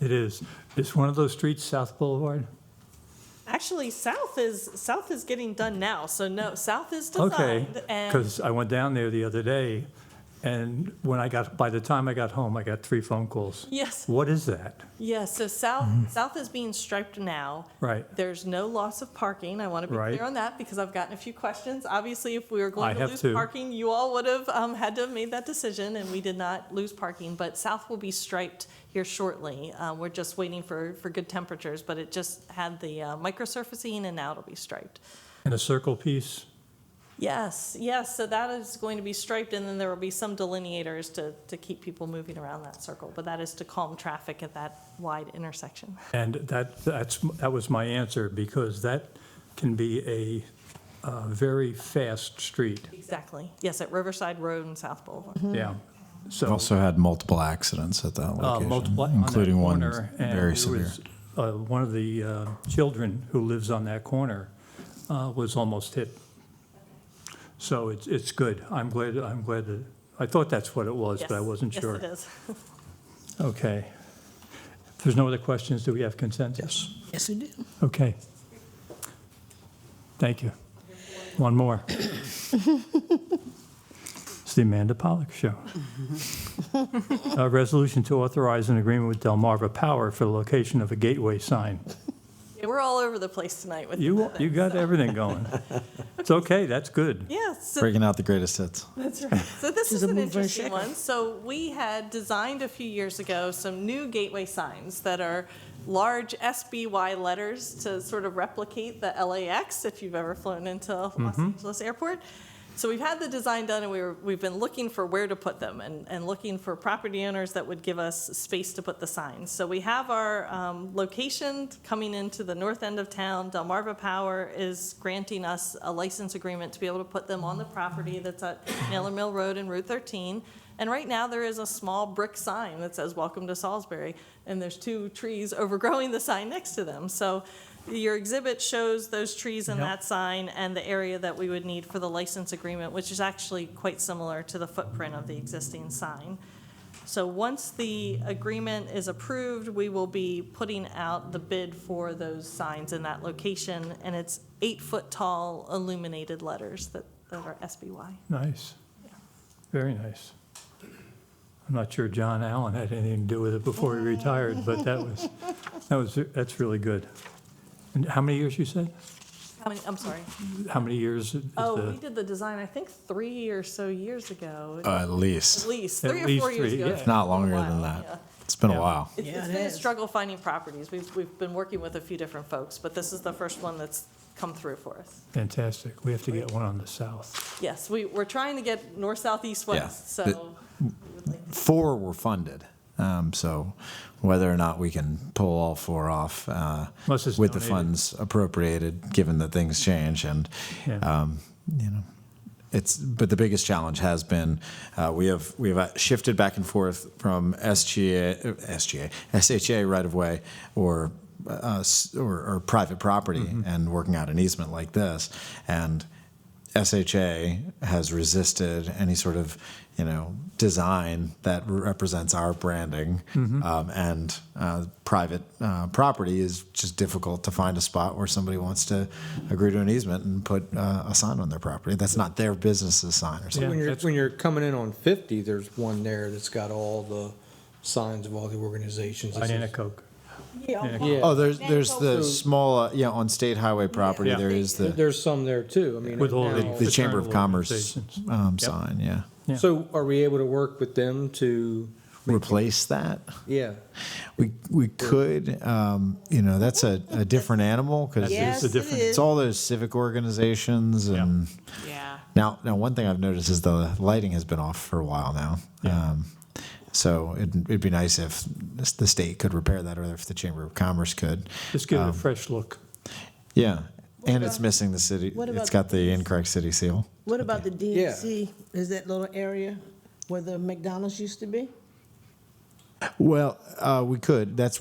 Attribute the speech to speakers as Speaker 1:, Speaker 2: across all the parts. Speaker 1: It is. It's one of those streets, South Boulevard?
Speaker 2: Actually, South is, South is getting done now, so no, South is
Speaker 1: Okay,
Speaker 2: designed and,
Speaker 1: because I went down there the other day, and when I got, by the time I got home, I got three phone calls.
Speaker 2: yes,
Speaker 1: What is that?
Speaker 2: yes, so
Speaker 1: Mm-hmm.
Speaker 2: South, South is being striped now.
Speaker 1: Right.
Speaker 2: There's no loss of parking. I want to be
Speaker 1: Right.
Speaker 2: clear on that because I've gotten a few questions. Obviously, if we were
Speaker 1: I
Speaker 2: going to
Speaker 1: have
Speaker 2: lose
Speaker 1: too.
Speaker 2: parking, you all would have um, had to have made that decision, and we did not lose parking. But South will be striped here shortly. Uh, We're just waiting for, for good temperatures, but it just had the uh, microsurfacing, and now it'll be striped.
Speaker 1: And a circle piece?
Speaker 2: Yes, yes, so that is going to be striped, and then there will be some delineators to, to keep people moving around that circle. But that is to calm traffic at that wide intersection.
Speaker 1: And that, that's, that was my answer, because that can be a uh, very fast street,
Speaker 2: Exactly. Yes, at Riverside Road and South Boulevard.
Speaker 1: yeah. So,
Speaker 3: Also had multiple accidents at that
Speaker 1: uh,
Speaker 3: location,
Speaker 1: multiply, on that
Speaker 3: including one
Speaker 1: corner, and
Speaker 3: very
Speaker 1: it
Speaker 3: severe.
Speaker 1: was, uh, One of the uh, children who lives on that corner uh, was almost hit. So it's, it's good. I'm glad, I'm glad, that- I thought that's what it was, but I
Speaker 2: Yes,
Speaker 1: wasn't sure.
Speaker 2: Yes, it is.
Speaker 1: Okay. If there's no other questions, do we have consent? Yes.
Speaker 4: Yes, we do.
Speaker 1: Okay. Thank you. One more. It's the Amanda Pollock Show. A resolution to authorize an agreement with Delmarva Power for the location of a gateway sign.
Speaker 2: Yeah, We're all over the place tonight with.
Speaker 1: You, you got everything going. It's okay, that's good.
Speaker 2: Yeah, so
Speaker 3: Breaking out the greatest hits.
Speaker 2: That's right. So this is
Speaker 4: She's a
Speaker 2: an
Speaker 4: mover
Speaker 2: interesting
Speaker 4: shaker.
Speaker 2: one. So we had designed a few years ago some new gateway signs that are large SBY letters to sort of replicate the LAX if you've ever flown into Los Angeles Airport. So we've had the design done and we were, we've been looking for where to put them and, and looking for property owners that would give us space to put the signs. So we have our um, location coming into the north end of town. Delmarva Power is granting us a license agreement to be able to put them on the property that's at Mailer Mill Road and Route 13. And right now, there is a small brick sign that says, "Welcome to Salisbury," and there's two trees overgrowing the sign next to them. So your exhibit shows those trees and
Speaker 1: Yep.
Speaker 2: that sign and the area that we would need for the license agreement, which is actually quite similar to the footprint of the existing sign. So once the agreement is approved, we will be putting out the bid for those signs in that location, and it's eight-foot-tall illuminated letters that that are SBY.
Speaker 1: Nice. Very nice. I'm not sure John Allen had anything to do with it before he retired, but that was, that was, that's really good. And how many years you said?
Speaker 2: How many, I'm sorry.
Speaker 1: How many years is
Speaker 2: Oh, we
Speaker 1: the?
Speaker 2: did the design, I think, three or so years ago,
Speaker 3: Uh, at
Speaker 2: at
Speaker 3: least,
Speaker 2: least,
Speaker 1: At
Speaker 2: three or
Speaker 1: least
Speaker 2: four years
Speaker 1: three,
Speaker 2: ago.
Speaker 1: yeah.
Speaker 2: It's
Speaker 3: if not
Speaker 2: been a
Speaker 3: longer
Speaker 2: while,
Speaker 3: than
Speaker 2: yeah.
Speaker 3: that. It's been
Speaker 1: Yeah.
Speaker 3: a while.
Speaker 2: It's,
Speaker 4: Yeah,
Speaker 2: it's
Speaker 4: it
Speaker 2: been a
Speaker 4: is.
Speaker 2: struggle finding properties. We've, we've been working with a few different folks, but this is the first one that's come through for us.
Speaker 1: Fantastic. We have to get one on the south.
Speaker 2: Yes, we, we're trying to get north, south, east,
Speaker 3: Yeah.
Speaker 2: west, so,
Speaker 3: Four were funded, um, so whether or not we can pull all four off uh,
Speaker 1: Unless it's
Speaker 3: with the
Speaker 1: donated.
Speaker 3: funds appropriated, given that things change and
Speaker 1: Yeah.
Speaker 3: um, you know. It's, but the biggest challenge has been uh, we have we have uh, shifted back and forth from SGA, uh, SGA SHA right of way or uh, s- or, or private property and working out an easement like this, and SHA has resisted any sort of you know design that represents our branding,
Speaker 1: Mm-hmm.
Speaker 3: um, and uh, private uh, property is just difficult to find a spot where somebody wants to agree to an easement and put uh, a sign on their property. That's not their business's sign or something.
Speaker 1: Yeah,
Speaker 5: When you're,
Speaker 1: that's-
Speaker 5: when you're coming in on fifty, there's one there that's got all the signs of all the organizations. It says-
Speaker 1: Banana Coke.
Speaker 3: Oh,
Speaker 5: Yeah,
Speaker 3: there's there's the small uh, yeah on state highway property.
Speaker 1: Yeah.
Speaker 3: There is the
Speaker 5: there's some there too, I mean.
Speaker 1: With all the-
Speaker 5: now-
Speaker 3: the Chamber of
Speaker 1: Fraternal
Speaker 3: Commerce
Speaker 1: organizations.
Speaker 3: um,
Speaker 1: Yep.
Speaker 3: sign. Yeah,
Speaker 1: Yeah.
Speaker 5: So are we able to work with them to,
Speaker 3: replace that.
Speaker 5: yeah,
Speaker 3: We we could, um, you know, that's a, a different animal because
Speaker 1: Yes,
Speaker 4: Yes,
Speaker 1: a
Speaker 4: it
Speaker 1: different-
Speaker 3: it's
Speaker 4: is.
Speaker 3: all those civic organizations and
Speaker 2: yeah.
Speaker 3: now now one thing I've noticed is the lighting has been off for a while now. Um, so it, it'd be nice if this- the state could repair that, or if the Chamber of Commerce could.
Speaker 1: Just give it a fresh look.
Speaker 3: Yeah, and it's missing the city.
Speaker 4: what
Speaker 3: It's
Speaker 4: about-
Speaker 3: got the incorrect city seal.
Speaker 4: What about the
Speaker 5: Yeah.
Speaker 4: DNC? Is that little area where the McDonald's used to be?
Speaker 3: Well, uh, we could. That's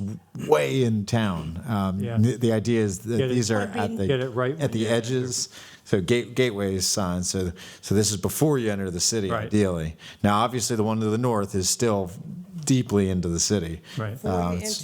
Speaker 3: way in town. Um,
Speaker 1: Yeah.
Speaker 3: the, the idea is that
Speaker 1: Get it-
Speaker 3: these are
Speaker 4: Or
Speaker 3: at
Speaker 4: being-
Speaker 3: the
Speaker 1: Get it right when
Speaker 3: at the
Speaker 1: you
Speaker 3: edges. So gate, gateways signs. So so this is before you enter the city,
Speaker 1: Right.
Speaker 3: ideally. Now, obviously, the one to the north is still deeply into the city.
Speaker 1: Right.
Speaker 4: Before you
Speaker 3: it's-